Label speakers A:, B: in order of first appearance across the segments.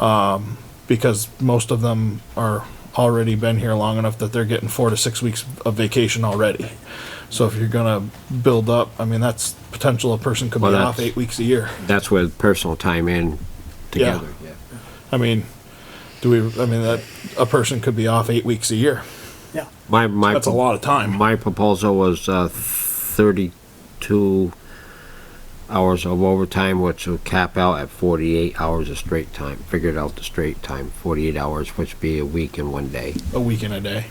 A: um, because most of them are already been here long enough that they're getting four to six weeks of vacation already. So if you're gonna build up, I mean, that's potential a person could be
B: Well,
A: off
B: that's-
A: eight weeks a year.
B: That's where personal time in
A: Yeah.
B: together. Yeah.
A: I mean, do we, I mean, that, a person could be off eight weeks a year.
C: Yeah.
B: My, my.
A: That's a lot of time.
B: My proposal was, uh, thirty-two hours of overtime, which would cap out at forty-eight hours of straight time. Figured out the straight time, forty-eight hours, which would be a week and one day.
A: a week and a day.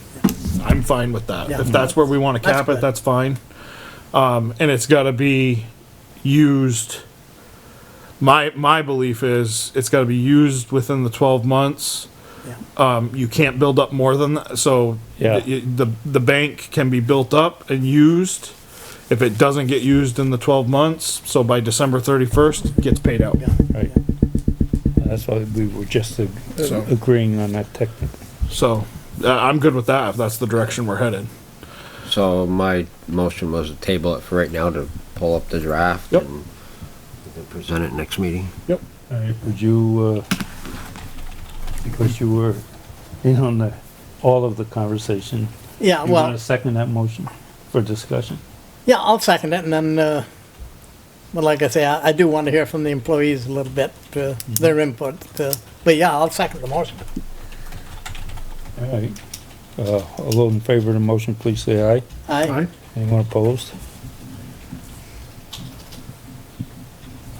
A: I'm fine with that.
C: Yeah.
A: If that's where we want to
C: That's
A: cap it,
C: good.
A: that's fine. Um, and it's got to be used. My my belief is it's got to be used within the 12 months.
C: Yeah.
A: Um, you can't build up more than that. So
D: Yeah.
A: the, the the bank can be built up and used. If it doesn't get used in the 12 months, so by December 31st, it gets paid out.
C: Yeah.
D: Right. That's why we were just ag-
A: So-
D: agreeing on that technical.
A: So uh, I'm good with that if that's the direction we're headed.
B: So my motion was to table it for right now to pull up the draft.
A: Yep.
B: and then Present it next meeting.
A: Yep.
D: Would you, uh, because you were in on the, all of the conversation,
C: Yeah,
D: you want
C: well,
D: to second that motion for discussion?
C: yeah, I'll second it and then, uh, but like I say, I, I do want to hear from the employees a little bit, uh, their input, uh, but yeah, I'll second the motion.
D: All right. Uh, all those in favor of the motion, please say aye.
C: Aye.
D: Anyone opposed?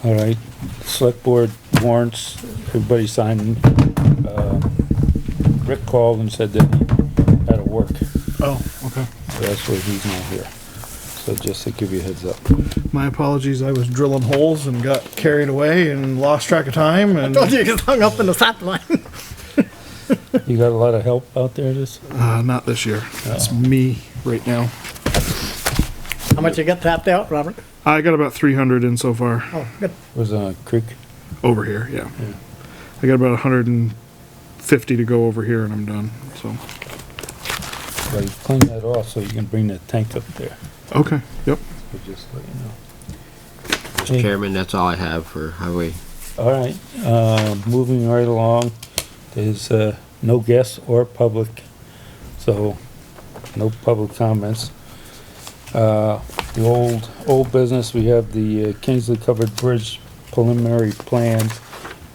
D: All right, select board warrants, everybody signing. Uh, Rick called and said that he had to work, so
A: Oh, okay.
D: that's why he's not here. So just to give you a heads up.
A: My apologies, I was drilling holes and got carried away and lost track of time and
C: Told you you get hung up in the sap line.
D: You got a lot of help out there this?
A: uh, not this year. It's me right now.
C: How much you get tapped out, Robert?
A: I got about 300 in so far
C: Oh, good.
D: Was on a creek?
A: over here, yeah. I got about 150 to go over here and I'm done. So,
D: Well, you clean that off so you can bring that tank up there.
A: okay. Yep.
D: So Just let you know.
B: Mr. Chairman, that's all I have for highway.
D: All right, uh, moving right along, there's, uh, no guests or public, so no public comments. Uh, the old, old business, we have the uh, Kingsley Covered Bridge preliminary plans.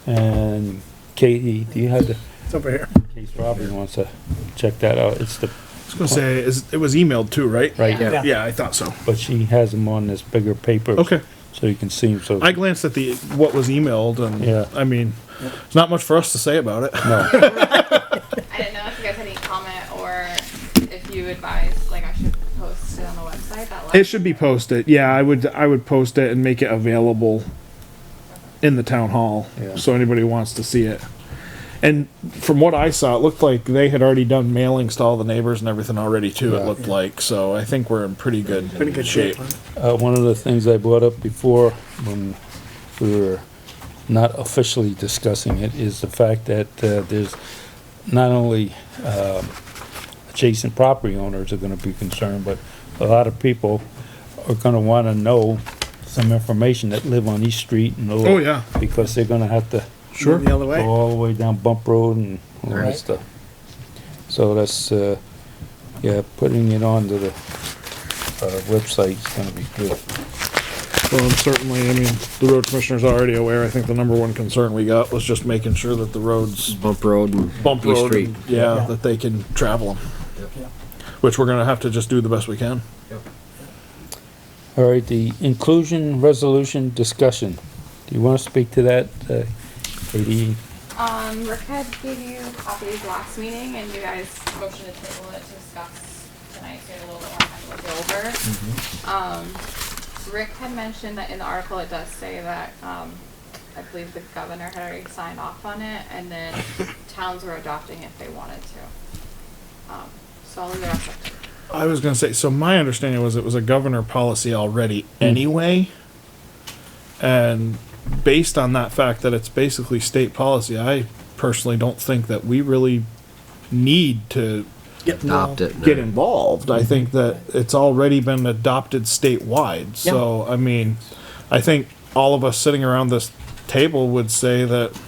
D: And Katie, do you have the,
C: It's over here.
D: in case Robbie wants to check that out, it's the,
A: I was going to say, is- it was emailed too, right?
D: right,
C: Yeah.
A: Yeah, I thought so.
D: but she has them on this bigger paper.
A: Okay.
D: So you can see them, so.
A: I glanced at the what was emailed and
D: Yeah.
A: I mean, there's not much for us to say about it.
D: No,
E: I didn't know if you guys had any comment or if you advised, like, I should post it on the website. That
A: It should be posted. Yeah, I would I would post it and make it available in the town hall
D: Yeah.
A: so anybody who wants to see it. And from what I saw, it looked like they had already done mailings to all the neighbors and everything already too. It
D: Yeah.
A: looked like so. I think we're in pretty good pretty good shape.
D: Uh, one of the things I brought up before when we were not officially discussing it is the fact that, uh, there's not only, um, adjacent property owners are gonna be concerned, but a lot of people are gonna wanna know some information that live on East Street and. all-
A: Oh, yeah.
D: Because they're gonna have to
A: Sure.
C: The other
D: go
C: way.
D: all the way down Bump Road and all that
B: Right.
D: stuff. So that's, uh, yeah, putting it onto the, uh, website's gonna be good.
A: Well, and certainly, I mean, the road commissioner's already aware. I think the number one concern we got was just making sure that the roads
B: Bump road and.
A: bump
B: East
A: road,
B: Street.
A: and- yeah,
C: Yeah.
A: that they can travel them.
C: Yeah.
A: Which we're gonna have to just do the best we can.
D: All right, the inclusion resolution discussion. Do you want to speak to that, uh, Katie?
E: Um, Rick had gave you copies last meeting and you guys motioned to table it to discuss tonight, so you had a little bit more time to look it over.
A: Mm-hmm.
E: Um, Rick had mentioned that in the article, it does say that, um, I believe the governor had already signed off on it and then towns were adopting if they wanted to. Um, so I'll leave the rest up to you.
A: I was gonna say, so my understanding was it was a governor policy already
B: Hmm.
A: anyway. And based on that fact that it's basically state policy, I personally don't think that we really need to
B: Adopt it. Mm-hmm.
A: get involved. I think that it's already been adopted statewide, so, I mean, I think all of us sitting around this table would say that